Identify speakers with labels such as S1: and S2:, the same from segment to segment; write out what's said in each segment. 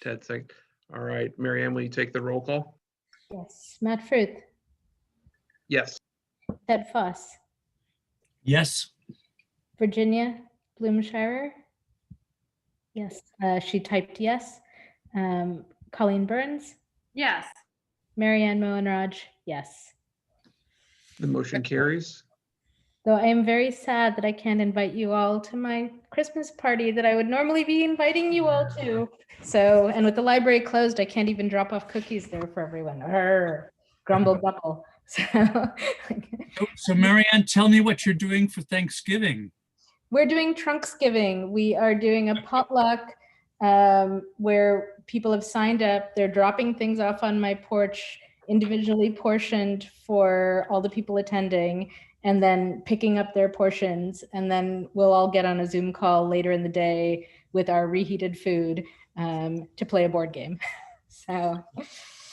S1: Ted second. All right, Mary Ann, will you take the roll call?
S2: Yes, Matt Frith,
S1: Yes.
S2: Ted Foss,
S3: Yes.
S2: Virginia Blumenshire. Yes, uh, she typed yes. Um, Colleen Burns,
S4: Yes.
S2: Marianne Mohenraj, yes.
S1: The motion carries.
S2: Though I am very sad that I can't invite you all to my Christmas party that I would normally be inviting you all to. So, and with the library closed, I can't even drop off cookies there for everyone. Arr, grumble, grumble. So
S3: Oh, So Marianne, tell me what you're doing for Thanksgiving.
S2: We're doing Trunksgiving. We are doing a potluck um, where people have signed up. They're dropping things off on my porch, individually portioned for all the people attending, and then picking up their portions. And then we'll all get on a Zoom call later in the day with our reheated food um, to play a board game. so,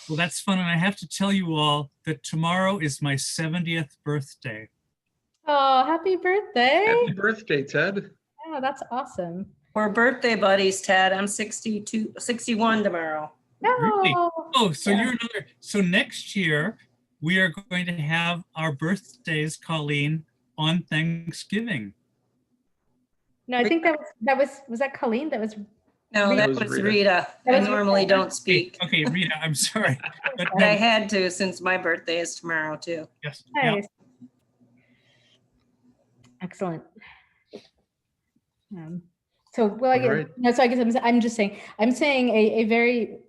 S3: Well, that's fun. And I have to tell you all that tomorrow is my 70th birthday.
S2: oh, happy birthday!
S1: Happy birthday, Ted.
S2: Yeah, that's awesome.
S4: We're birthday buddies, Ted. I'm 62, 61 tomorrow.
S3: Really?
S2: No.
S3: Oh, so
S2: Yeah.
S3: you're another. So next year, we are going to have our birthdays, Colleen, on Thanksgiving.
S2: No, I think that was that was was that Colleen? That was
S4: No, that
S1: That was
S4: was
S1: Rita.
S4: Rita.
S2: That
S4: I
S2: was
S4: normally
S2: Rita.
S4: don't speak.
S3: Okay, Rita, I'm sorry. But
S4: But I
S3: no,
S4: had to since my birthday is tomorrow too.
S3: yes, yeah.
S2: Nice. Excellent. Um, So, well, I guess,
S1: Alright.
S2: no, so I guess I'm, s- I'm just saying, I'm saying a, a very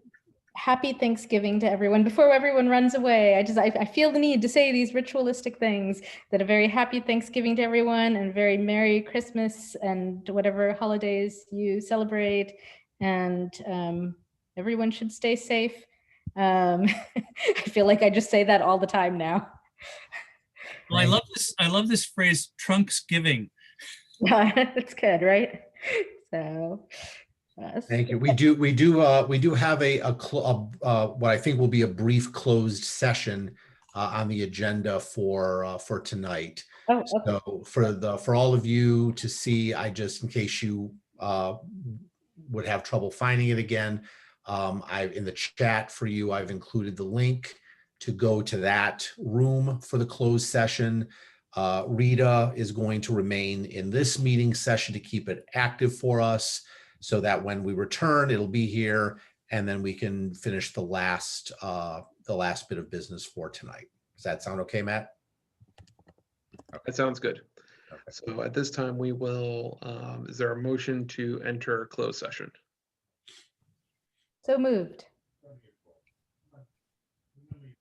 S2: happy Thanksgiving to everyone. Before everyone runs away, I just, I, I feel the need to say these ritualistic things that a very happy Thanksgiving to everyone and very Merry Christmas and whatever holidays you celebrate. And um, everyone should stay safe. Um, I feel like I just say that all the time now.
S3: Well, I love this. I love this phrase, Trunksgiving.
S2: Yeah, that's good, right? So. yes.
S5: Thank you. We do, we do, uh, we do have a, a, cl- a- uh, what I think will be a brief closed session uh, on the agenda for, uh, for tonight.
S2: Oh, okay.
S5: So for the, for all of you to see, I just, in case you uh, would have trouble finding it again, um, I, in the chat for you, I've included the link to go to that room for the closed session. Uh, Rita is going to remain in this meeting session to keep it active for us so that when we return, it'll be here and then we can finish the last, uh, the last bit of business for tonight. Does that sound okay, Matt?
S1: That sounds good.
S5: Okay.
S1: So at this time, we will, um, is there a motion to enter closed session?
S2: So moved.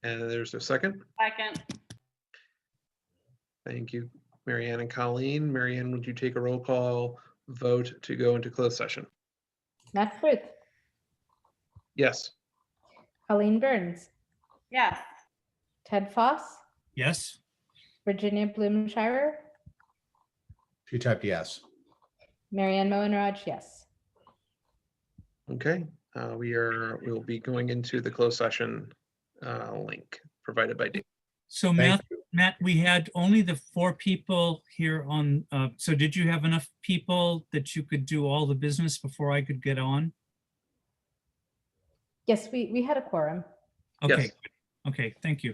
S1: And there's a second.
S4: Second.
S1: Thank you, Mary Ann and Colleen. Mary Ann, would you take a roll call vote to go into closed session?
S2: Matt Frith,
S1: Yes.
S2: Colleen Burns,
S4: Yes.
S2: Ted Foss,
S3: Yes.
S2: Virginia Blumenshire,
S5: She typed yes.
S2: Marianne Moenraj, yes.
S1: Okay, uh, we are, we'll be going into the closed session uh, link provided by Dave.
S3: So
S5: Thank
S3: Matt,
S5: you.
S3: Matt, we had only the four people here on. Uh, so did you have enough people that you could do all the business before I could get on?
S2: Yes, we, we had a quorum.
S3: Okay.
S1: Yes.
S3: Okay. Thank you.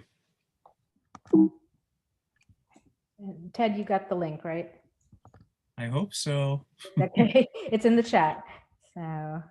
S2: And Ted, you got the link, right?
S3: I hope so.
S2: Okay, it's in the chat. So,